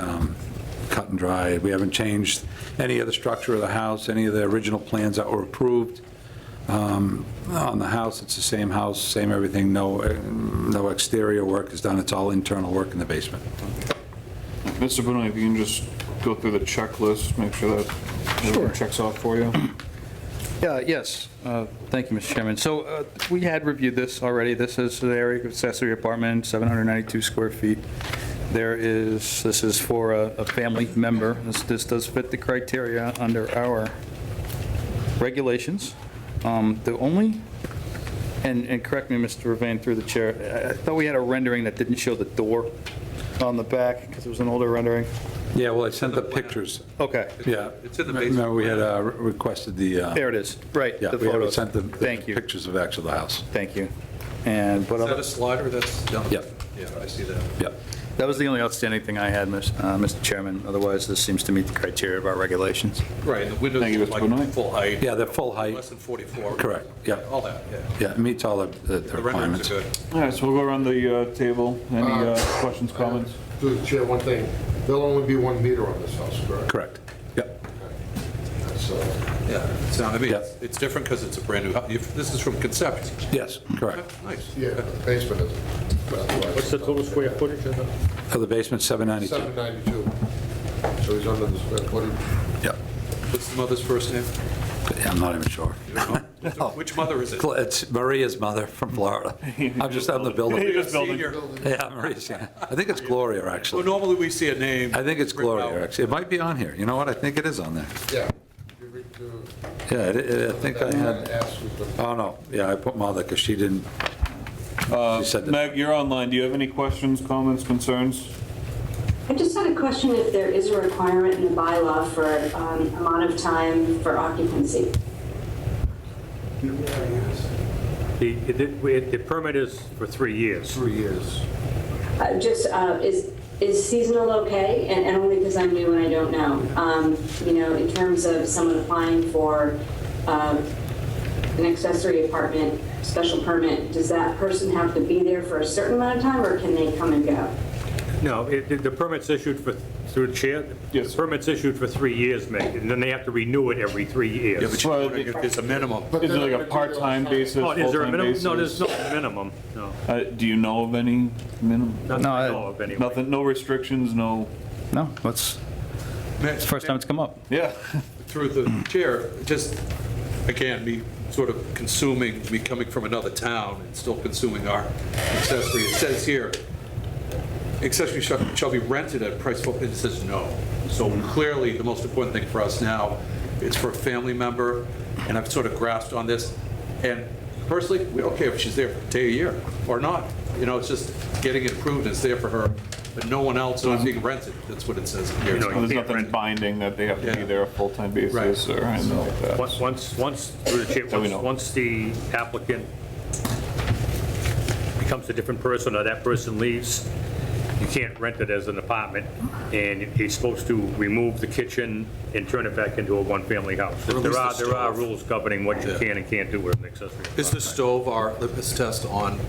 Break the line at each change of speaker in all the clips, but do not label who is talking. um, cut and dry. We haven't changed any of the structure of the house, any of the original plans that were approved um, on the house. It's the same house, same everything, no, uh, no exterior work is done, it's all internal work in the basement.
Mr. Benoit, if you can just go through the checklist, make sure that everything checks off for you.
Yeah, Yes, Uh, thank you, Mr. Chairman. So uh, we had reviewed this already. This is the area of accessory apartment, 792 square feet. There is, this is for a a family member. This- This does fit the criteria under our regulations. Um, The only, and and correct me, Mr. Ravan, through the chair, I- I thought we had a rendering that didn't show the door on the back because it was an older rendering.
Yeah, well, I sent the pictures,
Okay,
yeah.
It's in the basement.
Remember, we had uh, requested the, uh,
there it is, right.
yeah,
the
we had
photos.
sent the
Thank
the
you,
pictures of actual the house.
thank you. And uh, what
Is
other?
that a slider that's down?
Yep.
Yeah, I see that.
Yeah.
That was the only outstanding thing I had, Miss- uh, Mr. Chairman. Otherwise, this seems to meet the criteria of our regulations.
Right, and the windows
Thank you,
are
Mr. Benoit.
like full height.
Yeah, they're full height.
Less than 44.
Correct, yeah.
All that, yeah.
Yeah, it meets all the- the the
The renderings
requirements.
are good.
All right, so we'll go around the uh, table. Any uh, questions, comments?
Through the Uh, chair, one thing, there'll only be one meter on this house, correct?
Correct, yep.
That's, uh,
Yeah, it's not, I mean,
Yeah.
it's- it's different because it's a brand new, house. If- this is from conception. Oh,
Yes, correct.
Nice.
Yeah, the basement is.
What's the total square footage of the?
So the basement, 792.
792. So he's under the square footage.
Yep.
What's the mother's first name?
I'm not even sure. Oh.
Which mother is it?
It's Maria's mother from Florida. I'm just, I'm the builder.
Senior.
Yeah, Maria's, yeah. I think it's Gloria,
Well,
actually.
normally we see a name.
I think it's
written out.
Gloria, actually. It might be on here. You know what? I think it is on there.
Yeah. You read to-
Yeah, it- it- I think I had,
Ask who's the-
oh, no, yeah, I put mother because she didn't,
Uh,
she said that.
Meg, you're online. Do you have any questions, comments, concerns?
I just had a question if there is a requirement in the bylaw for um, amount of time for occupancy.
The, the- the permit is for three years.
Three years.
Uh, Just, uh, is is seasonal okay? And and only because I'm new and I don't know. Um, You know, in terms of someone applying for um, an accessory apartment special permit, does that person have to be there for a certain amount of time or can they come and go?
No, it- the the permit's issued for, through the chair?
Yes.
The permit's issued for three years, Meg, and then they have to renew it every three
Yeah,
years.
but you're wondering if there's a minimum.
But
Is it
they're
like
not
a
gonna do it
part-time
on-site.
basis,
Oh, is there a
full-time
minimum?
basis?
No, there's no minimum, no.
Uh, Do you know of any minimum?
Nothing I
No,
know of, anyway.
Nothing, no restrictions, no?
No, that's, it's the first time it's come up.
Yeah.
through the chair, just, again, me sort of consuming, me coming from another town and still consuming our accessory. It says here, accessory shall shall be rented at price, and it says no. So clearly, the most important thing for us now is for a family member, and I've sort of grasped on this. And personally, we don't care if she's there for a day a year or not. You know, it's just getting it approved, and it's there for her, but no one else, not being rented, that's what it says here.
You know,
There's
can't
nothing
rent.
binding that they have to be
Yeah.
there a full-time basis
Right.
or anything like that.
Once- Once, once, through the chair,
That we
once
know.
once the applicant becomes a different person, or that person leaves, you can't rent it as an apartment, and he's supposed to remove the kitchen and turn it back into a one-family house.
Or at least
There are,
the
there are
stove.
rules governing what you
Yeah.
can and can't do with an accessory
Is
apartment.
the stove our, this test on,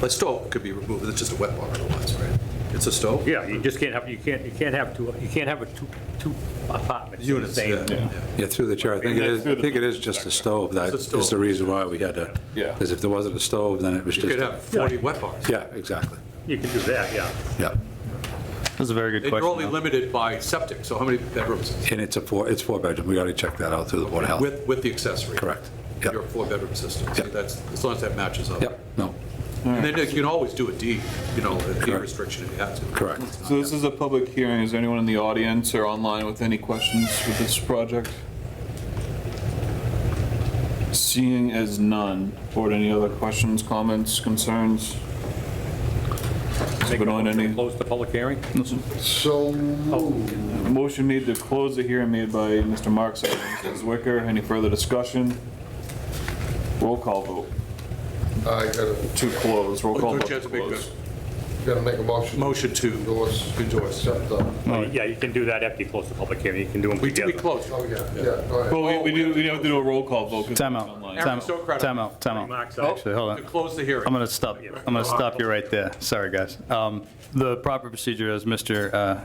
the stove could be removed, it's just a wet bar otherwise, right? It's a stove?
Yeah, you just can't have, you can't, you can't have two, you can't have a two, two apartments in the
Units,
same.
yeah, yeah.
Yeah, through the chair, I think it is, I think it is just a stove that
It's a stove.
is the reason why we had to,
Yeah.
because if there wasn't a stove, then it was
You
just,
could have 40 wet bars.
yeah, exactly,
You can do that, yeah.
yeah.
That's a very good
And You're only
question. though.
limited by septic, so how many bedrooms?
And it's a four, it's four bedroom, we already checked that out through the Board of Health.
With, with the accessory?
Correct. Yep.
Your four-bedroom system, so
Yep.
that's, as long as that matches up.
Yep, no,
And then you can always do a D, you know, a D
Correct.
restriction if you had to.
Correct.
It's not
So this is a public hearing. Is there anyone in the audience or online with any questions with this project? Seeing as none, board, any other questions, comments, concerns? Has
Make a
been on
motion to
any-
Close the public hearing?
So,
Motion made to close the hearing made by Mr. Mark, seconded by Mrs. Wicker. Any further discussion? Roll call vote
I gotta,
to close, roll call
Oh, Don't you
vote to
have to make
close.
gotta make a motion.
Motion to,
Endorse.
Endorse.
Accept, uh,
Yeah, you can do that after you close the public hearing, you can do them
we we
together.
close.
Oh, yeah, yeah, go ahead.
Well, we, we do, we have to do a roll call vote. 'cause
Time
it's
out,
online.
time
Aaron, so
out,
credible.
time out, time out.
Remarks out.
Actually, hold
To
on.
close the hearing.
I'm going to stop, I'm going to stop you right there. Sorry, guys. Um, The proper procedure, as Mr. uh,